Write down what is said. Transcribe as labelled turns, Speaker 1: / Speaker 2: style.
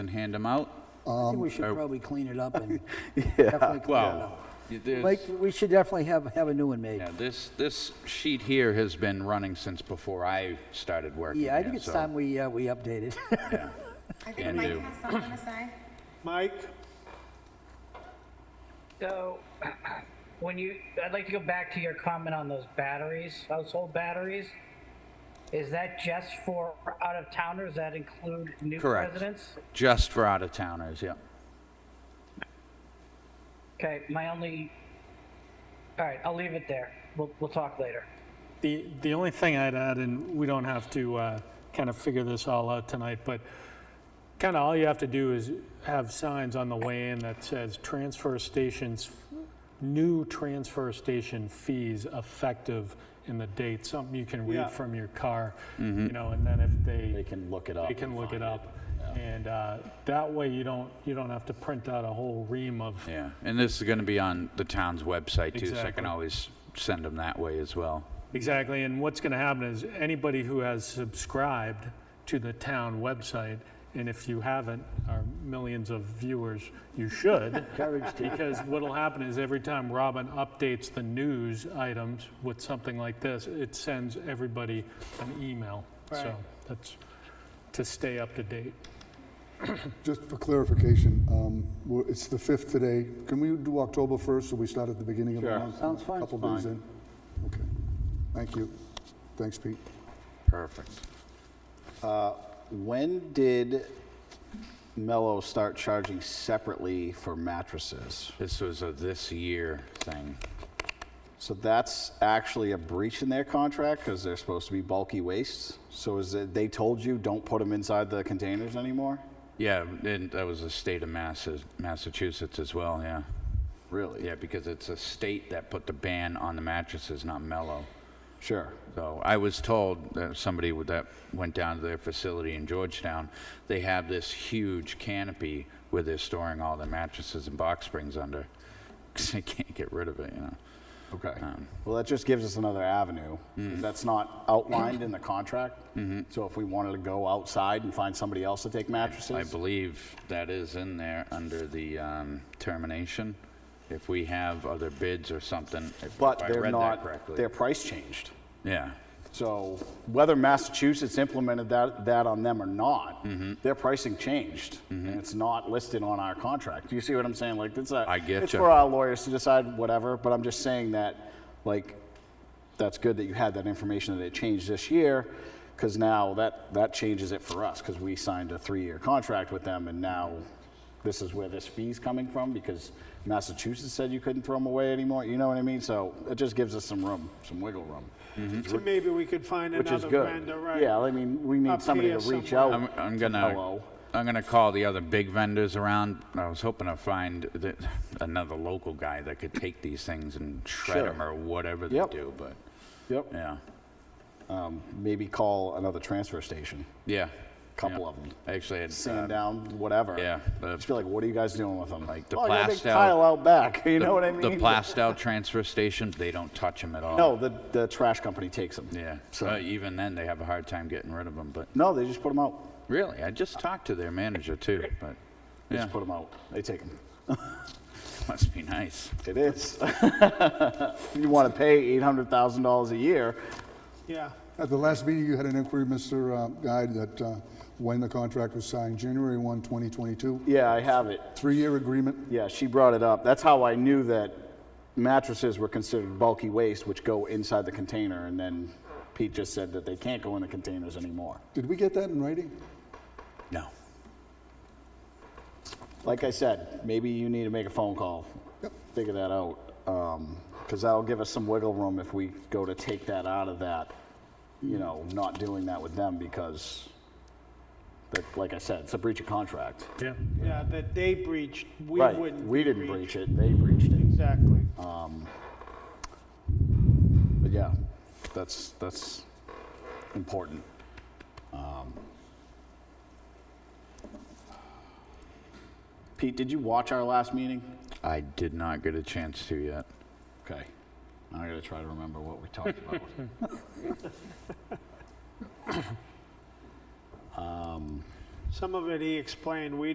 Speaker 1: and hand them out?
Speaker 2: I think we should probably clean it up and definitely clean it
Speaker 1: Well,
Speaker 2: up.
Speaker 1: there's-
Speaker 2: Like, we should definitely have, have a new one made.
Speaker 1: yeah, this, this sheet here has been running since before I started working
Speaker 2: Yeah, I
Speaker 1: here,
Speaker 2: think it's
Speaker 1: so-
Speaker 2: time we, uh, we update it.
Speaker 1: yeah.
Speaker 3: I
Speaker 1: Can
Speaker 3: think Mike
Speaker 1: do.
Speaker 3: has something to say.
Speaker 4: Mike,
Speaker 5: So, when you, I'd like to go back to your comment on those batteries, household batteries. Is that just for out of towners? That include new
Speaker 1: Correct.
Speaker 5: residents?
Speaker 1: Just for out-of-towners, yeah.
Speaker 5: Okay, my only. All right, I'll leave it there. We'll we'll talk later.
Speaker 4: the, the only thing I'd add, and we don't have to uh, kind of figure this all out tonight, but kind of all you have to do is have signs on the way in that says transfer stations, new transfer station fees effective in the date, something you can read from your car, you know, and then if they.
Speaker 1: Mm-hmm. They can look it up
Speaker 4: They can
Speaker 1: and
Speaker 4: look
Speaker 1: find
Speaker 4: it
Speaker 1: it,
Speaker 4: up. And uh, that way you don't, you don't have to print out a whole ream of
Speaker 1: Yeah, and this is going to be on the town's website too, so I can
Speaker 4: Exactly.
Speaker 1: always send them that way as well.
Speaker 4: Exactly, and what's going to happen is anybody who has subscribed to the town website, and if you haven't, our millions of viewers, you should.
Speaker 2: Encouraged to.
Speaker 4: Because what'll happen is every time Robin updates the news items with something like this, it sends everybody an email. So that's to stay up to date.
Speaker 6: Just for clarification, um, we're- it's the 5th today. Can we do October 1st, so we start at the beginning of the
Speaker 1: Sure.
Speaker 6: month?
Speaker 2: Sounds fine.
Speaker 6: Couple days in? Okay. Thank you. Thanks, Pete.
Speaker 1: Perfect.
Speaker 7: When did Mello start charging separately for mattresses?
Speaker 1: This was a this year thing.
Speaker 7: So that's actually a breach in their contract because they're supposed to be bulky wastes. So is it, they told you don't put them inside the containers anymore?
Speaker 1: Yeah, and that was the state of Massa- Massachusetts as well, yeah.
Speaker 7: Really?
Speaker 1: Yeah, because it's a state that put the ban on the mattresses, not Mellow.
Speaker 7: Sure.
Speaker 1: So I was told that somebody with that went down to their facility in Georgetown, they have this huge canopy where they're storing all their mattresses and box springs under. 'Cause they can't get rid of it, you know. Um,
Speaker 7: Okay. Well, that just gives us another avenue.
Speaker 1: Mm-hmm.
Speaker 7: That's not outlined in the contract. So if we wanted to go outside and find somebody else to take mattresses.
Speaker 1: I believe that is in there under the um, termination. If we have other bids or something, if
Speaker 7: But
Speaker 1: if I
Speaker 7: they're
Speaker 1: read that
Speaker 7: not,
Speaker 1: correctly.
Speaker 7: their price changed.
Speaker 1: Yeah,
Speaker 7: So whether Massachusetts implemented that, that on them or not, their pricing changed. And it's not listed on our contract. Do you see what I'm saying? Like, it's a,
Speaker 1: I get
Speaker 7: it's
Speaker 1: ya.
Speaker 7: for our lawyers to decide whatever, but I'm just saying that, like, that's good that you had that information that it changed this year, because now that, that changes it for us, because we signed a three-year contract with them, and now this is where this fee's coming from, because Massachusetts said you couldn't throw them away anymore, you know what I mean? So it just gives us some room, some wiggle room.
Speaker 8: So maybe we could find
Speaker 7: Which is
Speaker 8: another
Speaker 7: good.
Speaker 8: vendor, right?
Speaker 7: Yeah, I mean, we need
Speaker 8: Up
Speaker 7: somebody to
Speaker 8: here
Speaker 7: reach
Speaker 8: somewhere.
Speaker 7: out.
Speaker 1: I'm, I'm
Speaker 7: to
Speaker 1: gonna,
Speaker 7: Mello.
Speaker 1: I'm gonna call the other big vendors around. I was hoping to find th- another local guy that could take these things and shred
Speaker 7: Sure.
Speaker 1: them or whatever they
Speaker 7: Yep.
Speaker 1: do, but,
Speaker 7: Yep,
Speaker 1: yeah,
Speaker 7: maybe call another transfer station,
Speaker 1: yeah.
Speaker 7: couple
Speaker 1: yeah.
Speaker 7: of them.
Speaker 1: Actually, uh, it's,
Speaker 7: Sand down, whatever.
Speaker 1: yeah, the-
Speaker 7: Just be like, what are you guys doing with them? Like
Speaker 1: the
Speaker 7: Oh, yeah, they
Speaker 1: Plastow-
Speaker 7: pile out back, you
Speaker 1: the-
Speaker 7: know what I
Speaker 1: The
Speaker 7: mean?
Speaker 1: Plastow transfer station, they don't touch them at all.
Speaker 7: No, the, the trash company takes them.
Speaker 1: Yeah,
Speaker 7: So-
Speaker 1: Uh, even then, they have a hard time getting rid of them, but
Speaker 7: No, they just put them out.
Speaker 1: Really? I just talked to their manager too, but
Speaker 7: They
Speaker 1: yeah,
Speaker 7: just put them out. They take them.
Speaker 1: must be nice.
Speaker 7: It is. You want to pay $800,000 a year,
Speaker 8: Yeah.
Speaker 6: At the last meeting, you had an inquiry, Mr. uh, Guide, that uh, when the contract was signed, January 1, 2022,
Speaker 7: yeah, I have it.
Speaker 6: three-year agreement.
Speaker 7: Yeah, she brought it up. That's how I knew that mattresses were considered bulky waste, which go inside the container. And then Pete just said that they can't go in the containers anymore.
Speaker 6: Did we get that in writing?
Speaker 1: No.
Speaker 7: Like I said, maybe you need to make a phone call, figure that out, because that'll give us some wiggle room if we go to take that out of that. You know, not doing that with them because, like- like I said, it's a breach of contract.
Speaker 4: Yeah.
Speaker 8: Yeah, that they breached, we
Speaker 7: right?
Speaker 8: wouldn't.
Speaker 7: we didn't breach it; they breached it.
Speaker 8: Exactly.
Speaker 7: But yeah, that's that's important. Um, Pete, did you watch our last meeting?
Speaker 1: I did not get a chance to yet.
Speaker 7: Okay. Now I gotta try to remember what we talked about.
Speaker 8: Some of it he explained, we